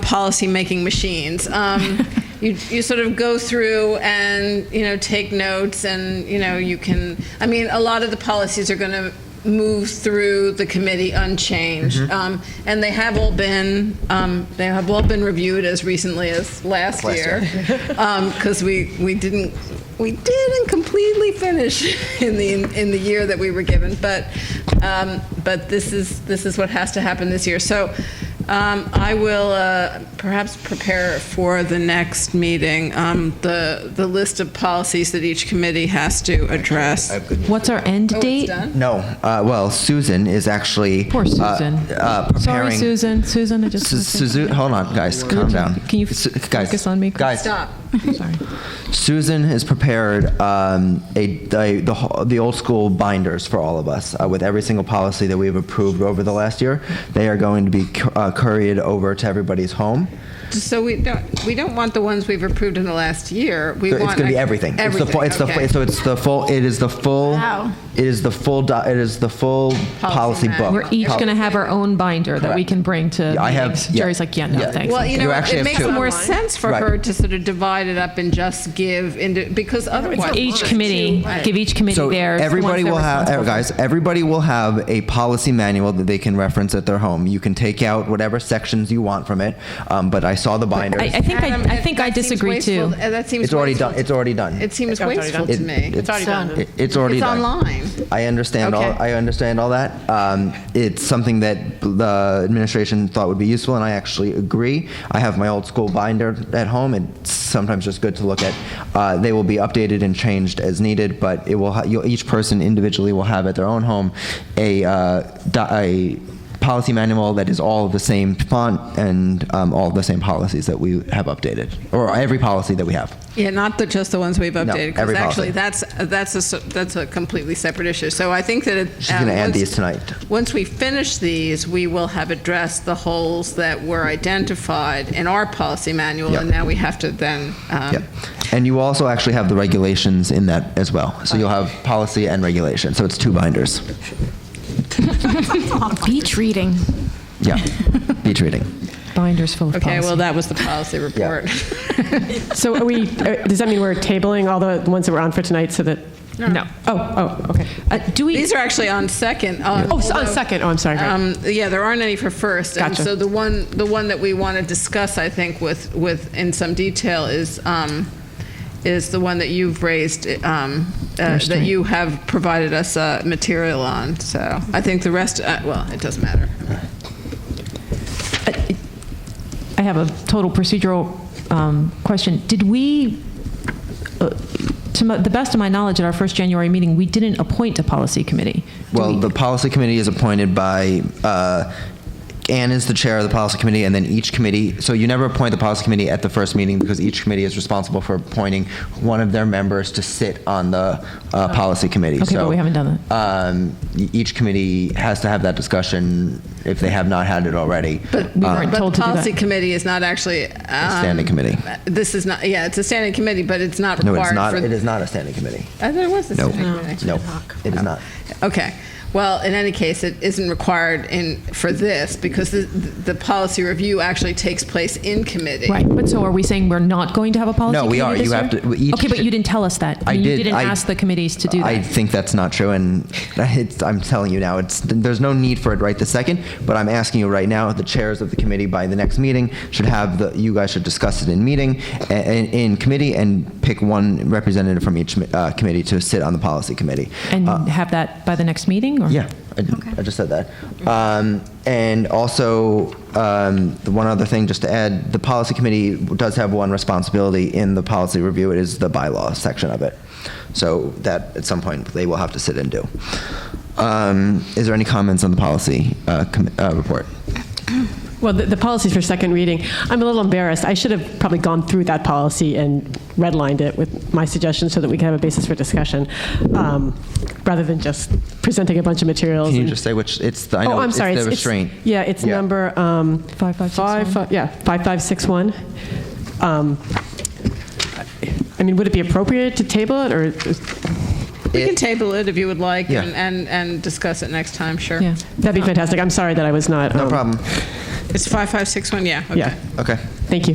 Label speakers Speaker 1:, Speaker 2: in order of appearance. Speaker 1: policy-making machines. Um, you, you sort of go through and, you know, take notes and, you know, you can, I mean, a lot of the policies are going to move through the committee unchanged. Um, And they have all been, um, they have all been reviewed as recently as last
Speaker 2: Last
Speaker 1: year. Because Um, we, we didn't, we didn't completely finish in the, in the year that we were given. But, um, but this is, this is what has to happen this year. So um, I will uh, perhaps prepare for the next meeting, um, the, the list of policies that each committee has to address.
Speaker 2: I have good news.
Speaker 3: What's our end
Speaker 1: Oh, it's
Speaker 3: date?
Speaker 1: done?
Speaker 2: No, uh, well, Susan is actually.
Speaker 3: Poor
Speaker 2: uh,
Speaker 3: Susan.
Speaker 2: uh, preparing.
Speaker 3: Sorry, Susan. Susan, I just.
Speaker 2: Su- Suzu- hold on, guys, calm down.
Speaker 3: Can you
Speaker 2: Su- guys,
Speaker 3: focus on me, Chris?
Speaker 2: Guys,
Speaker 1: Stop.
Speaker 3: Sorry.
Speaker 2: Susan has prepared um, a, a the, ho- the old school binders for all of us uh, with every single policy that we've approved over the last year. They are going to be cu- uh, couriered over to everybody's home.
Speaker 1: So we don't, we don't want the ones we've approved in the last year. We
Speaker 2: So
Speaker 1: want.
Speaker 2: it's going to be everything. It's the full, it's the
Speaker 1: okay.
Speaker 2: fu- so it's the full. It is the full.
Speaker 4: Wow.
Speaker 2: It is the full. Do, it is the full policy, book.
Speaker 1: manual.
Speaker 3: We're each
Speaker 2: Pol-
Speaker 3: going to have our own binder that we
Speaker 2: Correct.
Speaker 3: can bring to
Speaker 2: Yeah, I have-
Speaker 3: meetings.
Speaker 2: yeah.
Speaker 3: Jerry's like, yeah, no,
Speaker 2: Yeah.
Speaker 3: thanks.
Speaker 1: Well, you
Speaker 2: You
Speaker 1: know,
Speaker 2: actually
Speaker 1: it
Speaker 2: have
Speaker 1: makes
Speaker 2: two.
Speaker 1: more sense for
Speaker 2: Right.
Speaker 1: her to sort of divide it up and just give, into because otherwise.
Speaker 3: Each committee, give each committee
Speaker 2: so
Speaker 3: theirs. the ones
Speaker 2: everybody
Speaker 3: they're
Speaker 2: will have
Speaker 3: responsible for.
Speaker 2: guys everybody will have a policy manual that they can reference at their home you can take out whatever sections you want from it um, but i saw the binders
Speaker 3: I, I think
Speaker 1: Adam,
Speaker 3: I, I think
Speaker 1: that
Speaker 3: I
Speaker 1: seems
Speaker 3: disagree
Speaker 1: wasteful-
Speaker 3: too.
Speaker 1: uh, That seems.
Speaker 2: it's already done
Speaker 1: wasteful.
Speaker 2: it's already done
Speaker 1: It seems
Speaker 5: already
Speaker 1: wasteful
Speaker 5: done.
Speaker 1: to me.
Speaker 2: it's
Speaker 5: already done.
Speaker 2: it- it's already
Speaker 1: It's
Speaker 2: done.
Speaker 1: online.
Speaker 2: I understand
Speaker 1: Okay.
Speaker 2: all. I understand all that. Um, it's something that the administration thought would be useful, and I actually agree. I have my old school binder at home, and it's sometimes just good to look at. Uh, they will be updated and changed as needed, but it will. Ha- you'll, each person individually will have at their own home a. Uh, do- a policy manual that is all the same font and um, all the same policies that we have updated or every policy that we have
Speaker 1: Yeah, not the, just the ones we've updated.
Speaker 2: every
Speaker 1: Because actually,
Speaker 2: policy.
Speaker 1: that's, that's a, s- that's a completely separate issue. So I think that it.
Speaker 2: She's gonna
Speaker 1: um,
Speaker 2: add
Speaker 1: once-
Speaker 2: these tonight.
Speaker 1: Once we finish these, we will have addressed the holes that were identified in our policy manual.
Speaker 2: Yep.
Speaker 1: And now we have to then. um,
Speaker 2: Yep. And you also actually have the regulations in that as well. So you'll have policy and regulation. So it's two binders.
Speaker 4: Beach reading.
Speaker 2: Yeah. Beach reading.
Speaker 3: Binders full of
Speaker 1: Okay, well,
Speaker 3: policy.
Speaker 1: that was the policy report.
Speaker 5: So are we, uh, does that mean we're tabling all the ones that were on for tonight so that,
Speaker 3: No.
Speaker 5: oh, oh, okay.
Speaker 3: Uh, do we?
Speaker 1: These are actually on second. um,
Speaker 5: Oh, so on
Speaker 1: although-
Speaker 5: second, oh, I'm sorry. great.
Speaker 1: Um, yeah, there aren't any for first. And
Speaker 5: Gotcha.
Speaker 1: so the one, the one that we want to discuss, I think, with, with, in some detail is, um, is the one that you've raised, um, uh, that you have provided us, uh, material on. So I think the rest, uh, well, it doesn't matter.
Speaker 3: I have a total procedural um, question. Did we, uh, to my- the best of my knowledge, at our first January meeting, we didn't appoint a policy committee? Do
Speaker 2: Well,
Speaker 3: we-
Speaker 2: the policy committee is appointed by, uh, Anne is the chair of the policy committee and then each committee, so you never appoint the policy committee at the first meeting because each committee is responsible for appointing one of their members to sit on the, uh, policy committee.
Speaker 3: Okay, but
Speaker 2: So,
Speaker 3: we haven't done that.
Speaker 2: Um, e- each committee has to have that discussion if they have not had it already. uh,
Speaker 1: But,
Speaker 3: We um, weren't
Speaker 1: but the
Speaker 3: told to do that.
Speaker 1: policy committee is not actually. um,
Speaker 2: A standing committee.
Speaker 1: This is not, yeah, it's a standing committee, but it's not
Speaker 2: No, it is
Speaker 1: required
Speaker 2: not,
Speaker 1: for.
Speaker 2: it is not a standing committee.
Speaker 1: I thought it was a
Speaker 2: No,
Speaker 1: standing committee.
Speaker 2: no, it is not.
Speaker 1: Okay. Well, in any case, it isn't required in, for this because the, the policy review actually takes place in committee.
Speaker 3: Right, but so are we saying we're not going to have a policy
Speaker 2: No,
Speaker 3: committee
Speaker 2: we are.
Speaker 3: this
Speaker 2: You have
Speaker 3: year?
Speaker 2: to- we each
Speaker 3: Okay, but
Speaker 2: should-
Speaker 3: you didn't tell us that.
Speaker 2: I
Speaker 3: mean,
Speaker 2: did.
Speaker 3: You didn't
Speaker 2: I-
Speaker 3: ask the committees to do that.
Speaker 2: I think that's not true, and it's, I'm telling you now, it's, there's no need for it right this second. But I'm asking you right now, the chairs of the committee by the next meeting should have the, you guys should discuss it in meeting, a- in, in committee, and pick one representative from each uh, committee to sit on the policy committee.
Speaker 3: And have that by the next meeting? or-
Speaker 2: uh, Yeah, I, I just said that. Um, and also, um, the one other thing, just to add, the policy committee does have one responsibility in the policy review. It is the bylaw section of it. So that at some point they will have to sit and do. Um, is there any comments on the policy uh, com- uh, report?
Speaker 5: Well, the, the policies for second reading, I'm a little embarrassed. I should have probably gone through that policy and redlined it with my suggestions so that we can have a basis for discussion, um, rather than just presenting a bunch of materials.
Speaker 2: Can you
Speaker 5: and-
Speaker 2: just say which? It's the I know
Speaker 5: Oh, I'm
Speaker 2: it's
Speaker 5: sorry.
Speaker 2: the
Speaker 5: it's- it's-
Speaker 2: restraint.
Speaker 5: Yeah, it's
Speaker 2: Yeah.
Speaker 5: number, um.
Speaker 3: Five, five, six,
Speaker 5: five,
Speaker 3: one.
Speaker 5: fi- Yeah, 5561. Um, I mean, would it be appropriate to table it, or,
Speaker 1: We can
Speaker 2: It-
Speaker 1: table it if you would like
Speaker 2: Yeah.
Speaker 1: and, and, and discuss it next time, sure.
Speaker 3: Yeah.
Speaker 5: that'd be fantastic. I'm sorry that I was not.
Speaker 2: No
Speaker 5: um,
Speaker 2: problem.
Speaker 6: It's 5561, yeah, okay.
Speaker 5: Yeah,
Speaker 1: Okay.
Speaker 5: thank you.